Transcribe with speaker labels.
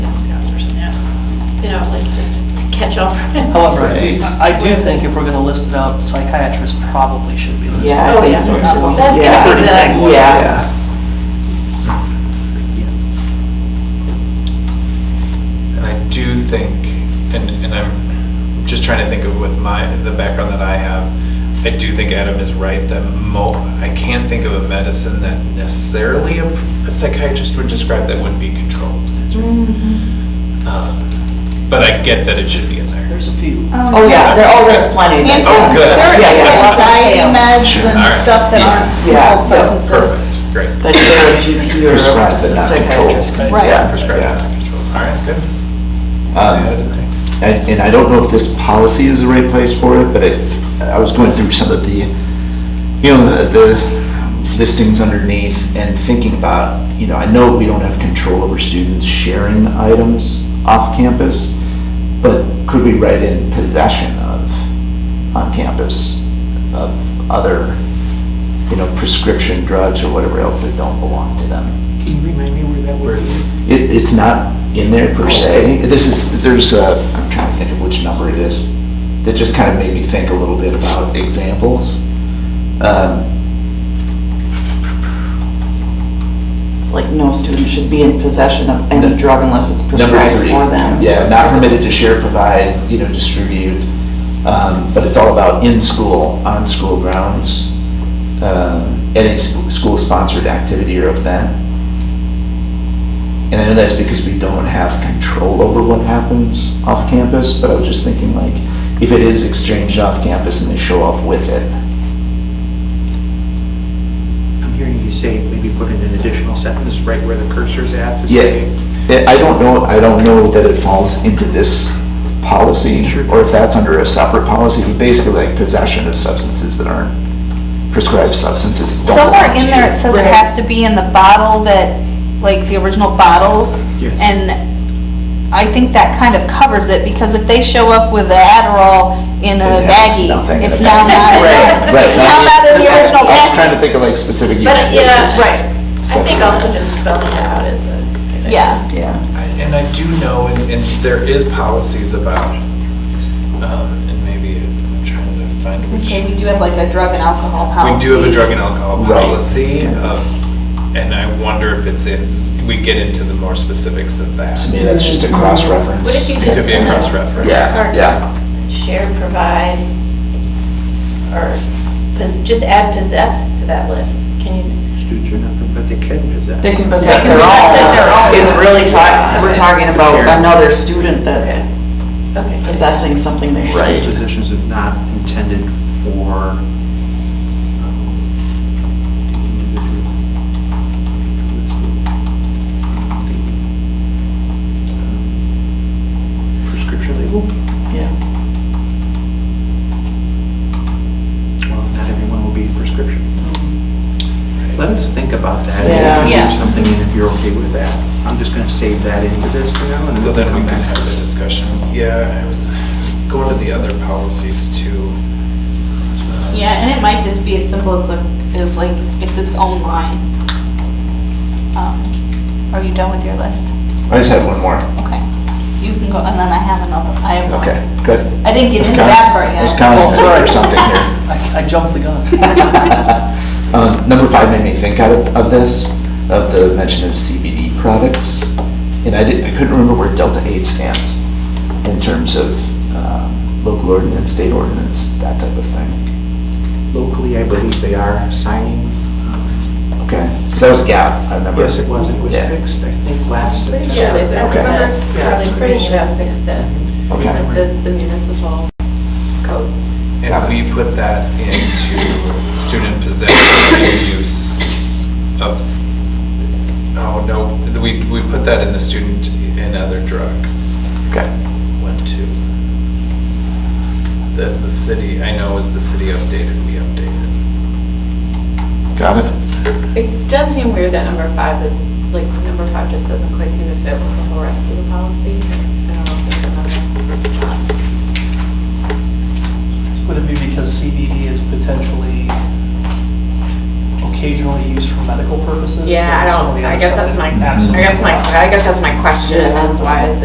Speaker 1: catch-all.
Speaker 2: However, I do-
Speaker 3: Right.
Speaker 2: I do think if we're going to list it out, psychiatrists probably should be listed.
Speaker 4: Yeah,
Speaker 1: Oh,
Speaker 4: I
Speaker 1: yeah.
Speaker 4: think so too.
Speaker 1: That's
Speaker 4: Yeah.
Speaker 1: gonna be the,
Speaker 4: Yeah,
Speaker 3: And I do think, and, and I'm just trying to think of with my, the background that I have, I do think Adam is right that mo, I can't think of a medicine that necessarily a a psychiatrist would describe that would be controlled. Um, But I get that it should be in there.
Speaker 2: Mm-hmm. There's a few.
Speaker 4: oh, yeah, there, oh, there's plenty.
Speaker 5: Anti-
Speaker 3: Oh, good.
Speaker 5: there are
Speaker 4: Yeah, yeah, lots of
Speaker 5: anxiety
Speaker 4: tails.
Speaker 5: meds
Speaker 3: All
Speaker 5: and
Speaker 3: right.
Speaker 5: stuff that aren't
Speaker 4: Yeah.
Speaker 5: controlled
Speaker 4: Yeah,
Speaker 3: Perfect,
Speaker 5: substances.
Speaker 3: great.
Speaker 4: But they're a GP or a
Speaker 6: Prescribed but not
Speaker 4: psychiatrist.
Speaker 6: controlled.
Speaker 5: Right.
Speaker 4: Yeah.
Speaker 3: Prescribed,
Speaker 6: yeah.
Speaker 3: not controlled. All right, good. Yeah, I
Speaker 6: Um,
Speaker 3: didn't think.
Speaker 6: And, and I don't know if this policy is the right place for it, but it, I was going through some of the, you know, the, the listings underneath and thinking about, you know, I know we don't have control over students sharing items off campus, but could we write in possession of, on campus, of other, you know, prescription drugs or whatever else that don't belong to them?
Speaker 2: Can you remind me where that word is?
Speaker 6: It, it's not in there per se. This is, there's a, I'm trying to think of which number it is, that just kind of made me think a little bit about examples. Um,
Speaker 4: Like, no student should be in possession of any
Speaker 6: No.
Speaker 4: drug unless it's
Speaker 6: Number
Speaker 4: prescribed
Speaker 6: three.
Speaker 4: for them.
Speaker 6: Yeah, not permitted to share, provide, you know, distribute, um, but it's all about in-school, on-school grounds, um, any s- school-sponsored activity or event. And I know that's because we don't have control over what happens off campus, but I was just thinking like, if it is exchanged off campus and they show up with it,
Speaker 7: I'm hearing you say maybe put in an additional sentence right where the cursor's at to say.
Speaker 6: Yeah, I I don't know, I don't know that it falls into this policy,
Speaker 7: Sure.
Speaker 6: or if that's under a separate policy, but basically like possession of substances that aren't prescribed substances. don't
Speaker 5: Somewhere
Speaker 6: belong to
Speaker 5: in there,
Speaker 6: you.
Speaker 5: it says it has to be in the bottle that, like the original bottle.
Speaker 7: Yes.
Speaker 5: And I think that kind of covers it, because if they show up with the Adderall in a
Speaker 6: It has
Speaker 5: baggie,
Speaker 6: nothing in
Speaker 5: it's
Speaker 6: a
Speaker 5: now not,
Speaker 6: baggie.
Speaker 5: in-
Speaker 6: Right,
Speaker 5: it's now not in the original
Speaker 6: I was trying to
Speaker 5: package.
Speaker 6: think of like specific use
Speaker 1: But, yeah,
Speaker 6: cases.
Speaker 1: right. I think also just spelling it out is a good idea.
Speaker 5: Yeah.
Speaker 4: Yeah,
Speaker 3: I- And I do know, and, and there is policies about, um, and maybe I'm trying to find which.
Speaker 5: Okay, we do have like a drug and alcohol policy.
Speaker 3: We do have a drug and alcohol
Speaker 6: Right.
Speaker 3: policy, um, and I wonder if it's in, we get into the more specifics of that.
Speaker 6: To me, that's just a cross-reference.
Speaker 1: Mm-hmm. What if you
Speaker 3: It
Speaker 1: just?
Speaker 3: could be a cross-reference.
Speaker 6: Yeah, yeah.
Speaker 1: Share, provide, or, pos- just add possess to that list. Can you?
Speaker 7: Students are not, but they can possess.
Speaker 4: they can
Speaker 1: They
Speaker 4: possess
Speaker 1: can
Speaker 4: their
Speaker 1: possess their
Speaker 4: own.
Speaker 1: own.
Speaker 4: It's really talking, we're talking about
Speaker 7: Yeah.
Speaker 4: another student that's
Speaker 1: Okay.
Speaker 4: possessing something they should.
Speaker 6: Right.
Speaker 7: Positions are not intended for. um, um, Prescription label?
Speaker 4: Yeah.
Speaker 7: Well, not everyone will be in prescription. Let us think about that.
Speaker 4: Yeah.
Speaker 7: and
Speaker 1: Yeah.
Speaker 7: Leave something in if you're okay with that. I'm just gonna save that into this for now and
Speaker 3: So
Speaker 7: then
Speaker 3: then we
Speaker 7: come
Speaker 3: can
Speaker 7: back.
Speaker 3: have the discussion. Yeah, I was going to the other policies too. Um,
Speaker 5: Yeah, and it might just be as simple as, like- as like, it's its own line. Um, Are you done with your list?
Speaker 6: I just had one more.
Speaker 5: Okay. You can go, and then I have another, I have one.
Speaker 6: Okay, good.
Speaker 5: I didn't get
Speaker 6: Let's
Speaker 5: into
Speaker 6: count-
Speaker 5: that part yet.
Speaker 6: Let's count
Speaker 2: Oh, sorry.
Speaker 6: for something here.
Speaker 2: I I jumped the gun.
Speaker 6: Um, Number five made me think out of, of this, of the mention of CBD products. And I didn't, I couldn't remember where Delta 8 stands in terms of um, local ordinance, state ordinance, that type of thing.
Speaker 7: Locally, I believe they are signing. um,
Speaker 6: Okay, because that was GAP, I remember.
Speaker 7: Yes, it was, it was
Speaker 6: Yeah.
Speaker 7: fixed, I think, last
Speaker 1: Pretty
Speaker 7: September.
Speaker 1: sure they've got
Speaker 6: Okay.
Speaker 1: that. Probably pretty enough fixed it
Speaker 6: Okay,
Speaker 1: with the- the municipal code.
Speaker 3: And we put that into student possession and use of, oh, no, we, we put that in the student and other drug.
Speaker 6: okay.
Speaker 3: One, two. So that's the city, I know is the city updated, we updated.
Speaker 6: Got it?
Speaker 1: It does seem weird that number five is, like, number five just doesn't quite seem to fit with the whole rest of the policy. I don't know if there's another-
Speaker 2: Would it be because CBD is potentially occasionally used for medical purposes?
Speaker 1: Yeah, I
Speaker 2: Some of
Speaker 1: don't,
Speaker 2: the
Speaker 1: I
Speaker 2: other
Speaker 1: guess
Speaker 2: stuff
Speaker 1: that's
Speaker 2: is
Speaker 1: my, I
Speaker 2: absolutely
Speaker 1: guess my,
Speaker 2: not.
Speaker 1: I guess that's my question, and that's why is